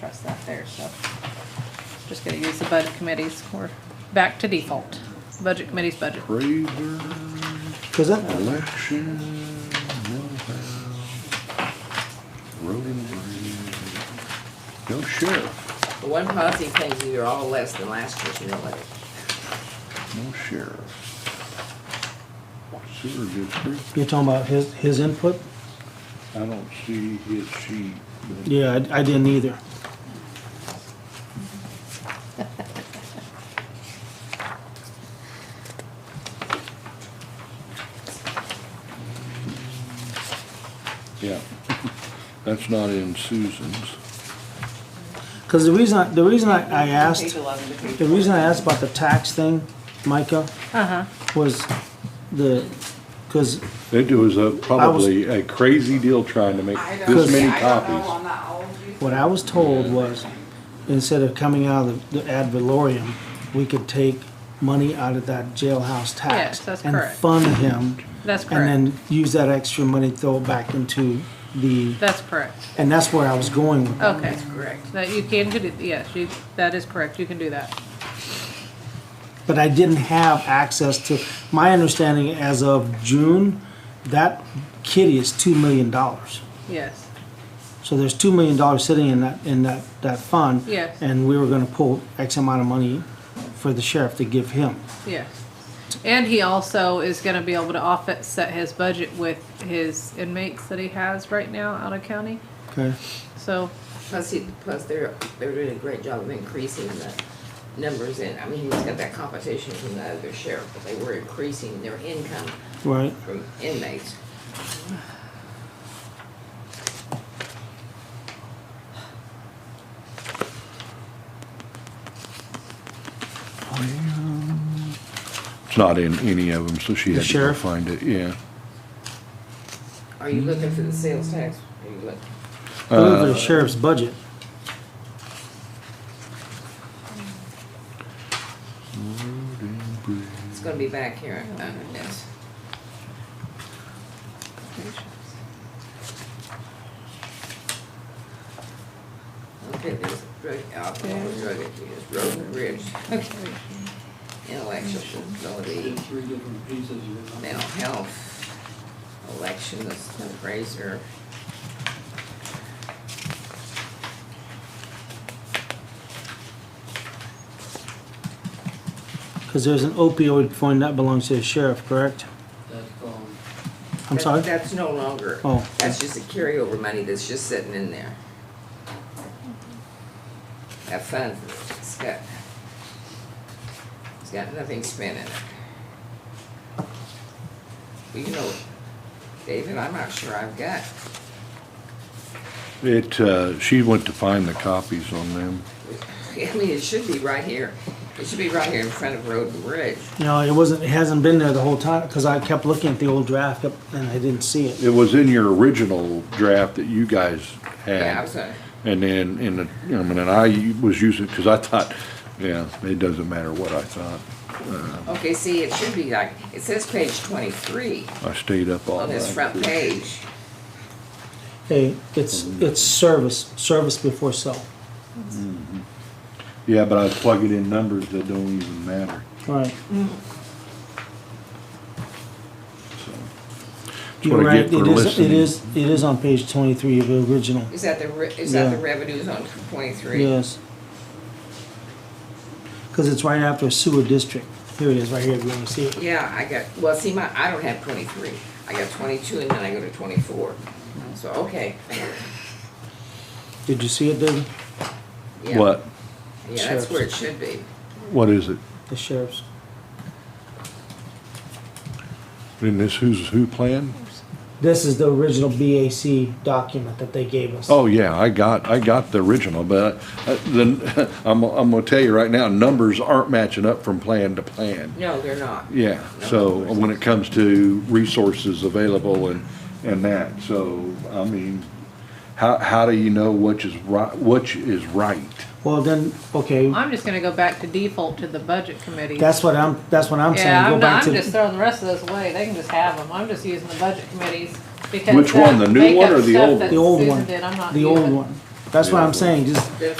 trust that there, so. Just gonna use the budget committees, we're back to default, budget committee's budget. Raider, Cause that, election, Millvale, road and bridge. No sheriff, The one positive thing is you're all less than last year's mill levy. no sheriff. Sewer district, you're talking about his, his input? I don't see his sheet. but- Yeah, I, I didn't either. Yeah, that's not in Susan's. Cause the reason, I- the reason I, I Page asked, 11 to page the reason I asked about the tax thing, Micah, Uh-huh, was the, cause It was a, probably a crazy deal trying to make I don't, this many I don't know, copies. I'm not old. what I was told was, instead of coming out of the the ad valorem, we could take money out of that jailhouse tax. Yes, that's And correct. fund him, that's and correct, then use that extra money, throw it back into the, that's correct, and that's where I was going with it. okay. Correct. That you can, do. yes, you, that is correct, you can do that. but I didn't have access to, my understanding as of June, that kitty is two million dollars. Yes, So there's two million dollars sitting in that, in that, that fund. Yes. And we were gonna pull X amount of money for the sheriff to give him. yes. And he also is gonna be able to offset his budget with his inmates that he has right now out of county, Okay, so, Plus, he, plus they're, they're doing a great job of increasing the numbers in, I mean, he's got that competition from the other sheriff, but they were increasing their income right. from inmates. It's not in any of them, so she The had to go sheriff? find it, yeah. Are you looking for the sales tax? Are you looking? I looked at the sheriff's budget. Road and bridge. It's gonna be back here under this. Okay, there's drug, alcohol, drug abuse, road and bridge, intellectual disability, Three different pieces. of it. mental health, elections, fundraiser. Cause there's an opioid fund that belongs to the sheriff, correct? That's gone. I'm That- sorry? That's no longer, Oh. that's just a carryover money that's just sitting in there. That fund, it's got, it's got nothing spent in it. Well, You know, David, I'm not sure I've got, It, uh, she went to find the copies on them. I mean, it should be right here, it should be right here in front of Road and Bridge. No, it wasn't, it hasn't been there the whole time, cause I kept looking at the old draft up, and I didn't see it. It was in your original draft that you guys Yeah, I had. was gonna- And then, in the, I mean, and I was using, because I thought, yeah, it doesn't matter what I thought. okay, see, it should be like, it says page twenty-three I stayed up all night. on this front page. Hey, it's, it's service, service before self. Yeah, but I was plugging in numbers that don't even matter, Right. so. That's You're what I right, get it for is, it listening. is, it is on page twenty-three of the original, Is that the, re- is that the Yeah. revenues on twenty-three? yes. Cause it's right after sewer district, here it is, right here, if you wanna see it. Yeah, I got, well, see, my, I don't have twenty-three, I got twenty-two and then I go to twenty-four, so, okay. Did you see it, David? Yeah. What, Yeah, that's where it should be, what is it? The sheriff's, In this who's who plan? this is the original BAC document that they gave us. Oh, yeah, I got, I got the original, but uh, then, I'm, I'm gonna tell you right now, numbers aren't matching up from plan to plan. no, they're not. Yeah, No, so there's- when it comes to resources available and, and that, so, I mean, how, how do you know which is right, which is right? Well, then, okay, I'm just gonna go back to default to the budget committee. that's what I'm, that's what I'm Yeah, saying, go I'm, back not- to. I'm just throwing the rest of those away. They can just have them. I'm just using the budget committees because Which that one, the new one makeup or the stuff old that The old Susan one, did, I'm not the old using- one, That's what I'm saying, just That's